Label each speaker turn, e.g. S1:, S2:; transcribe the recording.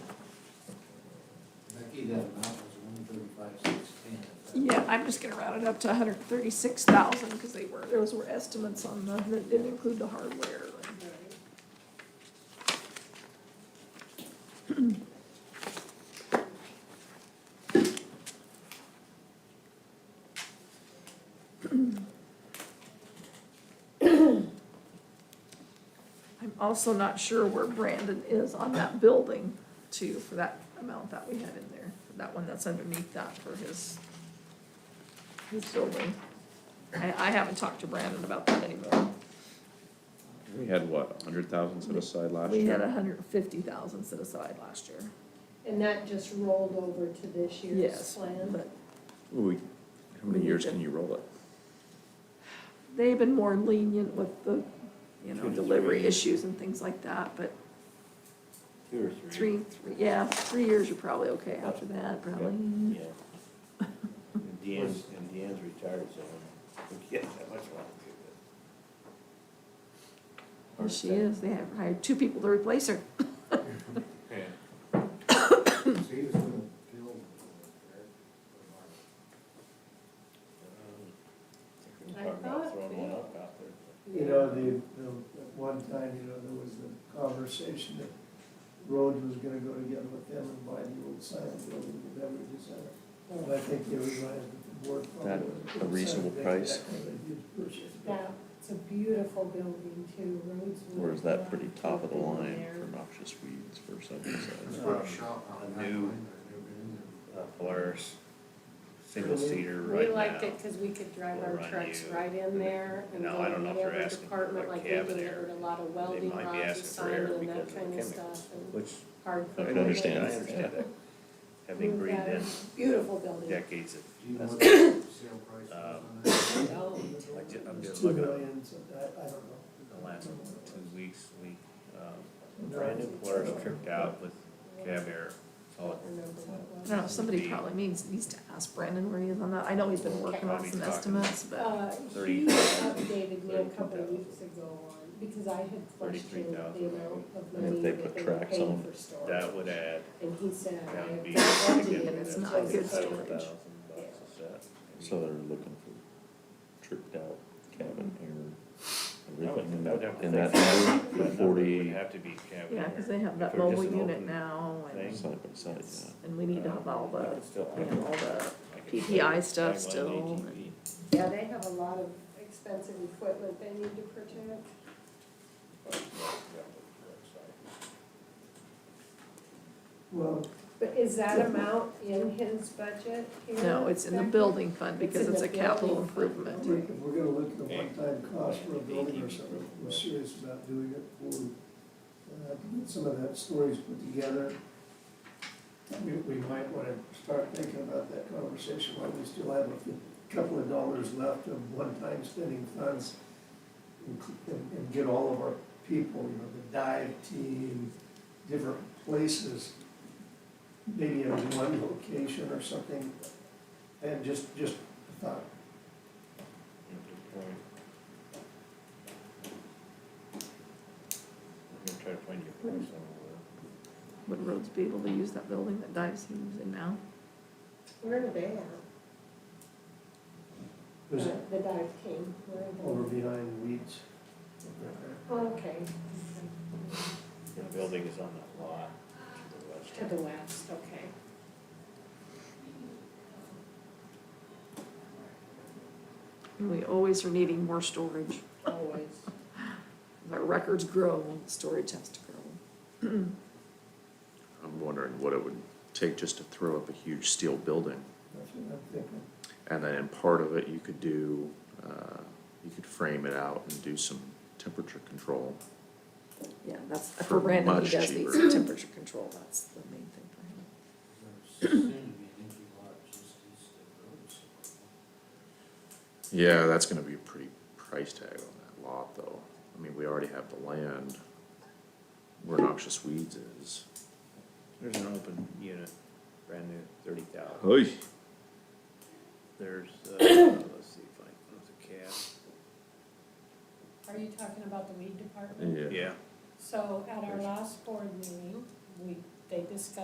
S1: see that amount was one thirty-five, six ten.
S2: Yeah, I'm just gonna round it up to hundred and thirty-six thousand, because they were, those were estimates on the, that didn't include the hardware. I'm also not sure where Brandon is on that building too, for that amount that we had in there, that one that's underneath that for his, his building. I, I haven't talked to Brandon about that anymore.
S3: We had what, a hundred thousand set aside last
S2: We had
S3: year?
S2: a hundred and fifty thousand set aside last year,
S4: And that just rolled over to this year's
S2: yes,
S4: plan?
S2: but
S3: Ooh, we- how many years can you roll it?
S2: they've been more lenient with the, you know,
S3: Two to
S2: delivery
S3: three.
S2: issues and things like that, but
S1: Two or
S2: three, three, yeah, three years you're probably okay after that, probably.
S5: Yeah. And Deanne's, and Deanne's retired, so I don't think he has that much longer.
S2: And She is, they have hired two people to replace her.
S5: Yeah.
S1: So he was gonna build.
S4: I thought
S5: Throwing
S4: we-
S5: one up out there.
S6: You know, the, the, at one time, you know, there was the conversation that Rhodes was gonna go together with them and buy the old silent building, the beverage center. And I think they realized that the board probably.
S3: That
S6: wasn't
S3: a
S6: gonna
S3: reasonable
S6: sign that
S3: price?
S6: back when they did purchase it.
S4: Yeah, it's a beautiful building too, roads. were-
S3: Or is that pretty top of the line
S4: There.
S3: for noxious weeds for something
S1: Let's
S3: size?
S1: put a shop on
S5: A
S1: that
S5: new-
S1: line, I've never been in
S5: Uh, Polaris, single seater
S4: We
S5: right now.
S4: liked it because we could drive
S5: We'll
S4: our
S5: run
S4: trucks
S5: you.
S4: right in there and
S5: Now,
S4: go
S5: I don't
S4: in
S5: know if they're
S4: every
S5: asking for
S4: department,
S5: a
S4: like we
S5: cabin
S4: delivered
S5: air.
S4: a lot of welding
S5: might be
S4: rods,
S5: asking for air
S4: assignment and
S5: because
S4: that
S5: of the
S4: kind of
S5: chemicals.
S4: stuff. and
S5: Which
S4: Hard.
S5: I
S3: can
S5: can
S3: understand.
S5: I understand that. Having
S4: We've
S5: breathed
S4: got a
S5: in
S4: Beautiful building.
S5: decades of,
S1: there. Do you know what the sale price was on that?
S4: Oh,
S5: I ju- I'm
S6: It was
S5: just
S6: two
S5: looking at
S6: million, so I, I don't know.
S5: the last two weeks, we, um,
S6: And
S5: brand new
S6: they're-
S5: Polaris tripped out with cab air, all
S4: I don't remember
S2: I
S4: what
S2: don't
S4: it
S2: know, somebody probably needs, needs to ask Brandon where he is on that, I know he's been working on some estimates,
S4: was.
S5: Oh.
S2: but.
S4: Uh,
S5: Thirty-
S4: he updated me a
S5: thirty-two
S4: couple of
S5: thousand.
S4: weeks ago on, because I had
S5: Thirty-three
S4: questioned the
S5: thousand.
S4: amount of
S3: And if
S4: money
S3: they
S4: that
S3: put
S4: they were
S3: tracks
S4: paying
S3: on
S4: for storage.
S5: That would add,
S4: And he said, I
S5: that
S4: have
S5: would be.
S4: been funding
S2: And it's not
S4: just
S2: good
S4: storage.
S2: storage.
S3: So they're looking for tricked out cabin air,
S5: That would-
S3: everything in
S5: that would
S3: that,
S5: have to
S3: in
S5: think
S3: that
S5: about
S3: number,
S5: That number would
S3: forty,
S5: have to be cabin
S2: Yeah,
S5: air.
S2: cause they have that
S5: If they're just
S2: mobile
S5: an
S2: unit
S5: open
S2: now
S5: thing.
S2: and,
S3: side by side, yeah.
S2: and we need to have all
S5: I
S2: the,
S5: could still- I
S2: we
S5: could-
S2: have all the,
S5: I could
S2: PPI
S5: say
S2: stuff
S5: tagline
S2: still,
S5: ATV.
S4: Yeah, they have a lot of expensive equipment they need to protect.
S6: Well,
S4: But is that amount in his budget here?
S2: no, it's in the
S4: Becky?
S2: building fund because
S4: in
S2: it's
S4: the
S2: a capital
S4: building fund.
S6: I
S2: improvement.
S6: think if we're gonna look at the one-time cost for a building or something, we're serious about doing it, we'll uh, have to get some of that stories put together. We, we might wanna start thinking about that conversation, while we still have a few- couple of dollars left of one-time spending funds. And, and get all of our people, you know, the dive team, different places, maybe in one location or something. And just, just a thought,
S5: I'm gonna try to find your price on
S2: Would Rhodes be able to use that building that Dives uses in now?
S4: Where are they at?
S6: there's
S4: Uh, The dive team, where
S6: over
S4: are they?
S6: behind weeds.
S4: Oh, okay,
S5: it. The building is on that lot to the west.
S4: to the west, okay.
S2: And we always are needing more storage,
S4: Always.
S2: as our records grow, the storage has to grow.
S3: I'm wondering what it would take just to throw up a huge steel building.
S6: That's what I'm thinking.
S3: And then in part of it, you could do, uh, you could frame it out and do some temperature control.
S2: Yeah, that's,
S3: For
S2: for Brandon, he
S3: much
S2: does these
S3: cheaper.
S2: temperature control, that's the main thing for him.
S1: There's soon to be an empty lot just east of Rhodes.
S3: Yeah, that's gonna be a pretty price tag on that lot, though. I mean, we already have the land where noxious weeds is.
S5: There's an open unit, brand new, thirty thousand.
S3: Oy.
S5: There's, uh, let's see if I, there's
S4: Are you talking about the weed department?
S3: Yeah.
S5: a cab. Yeah.
S4: So at our last board meeting, we, they discussed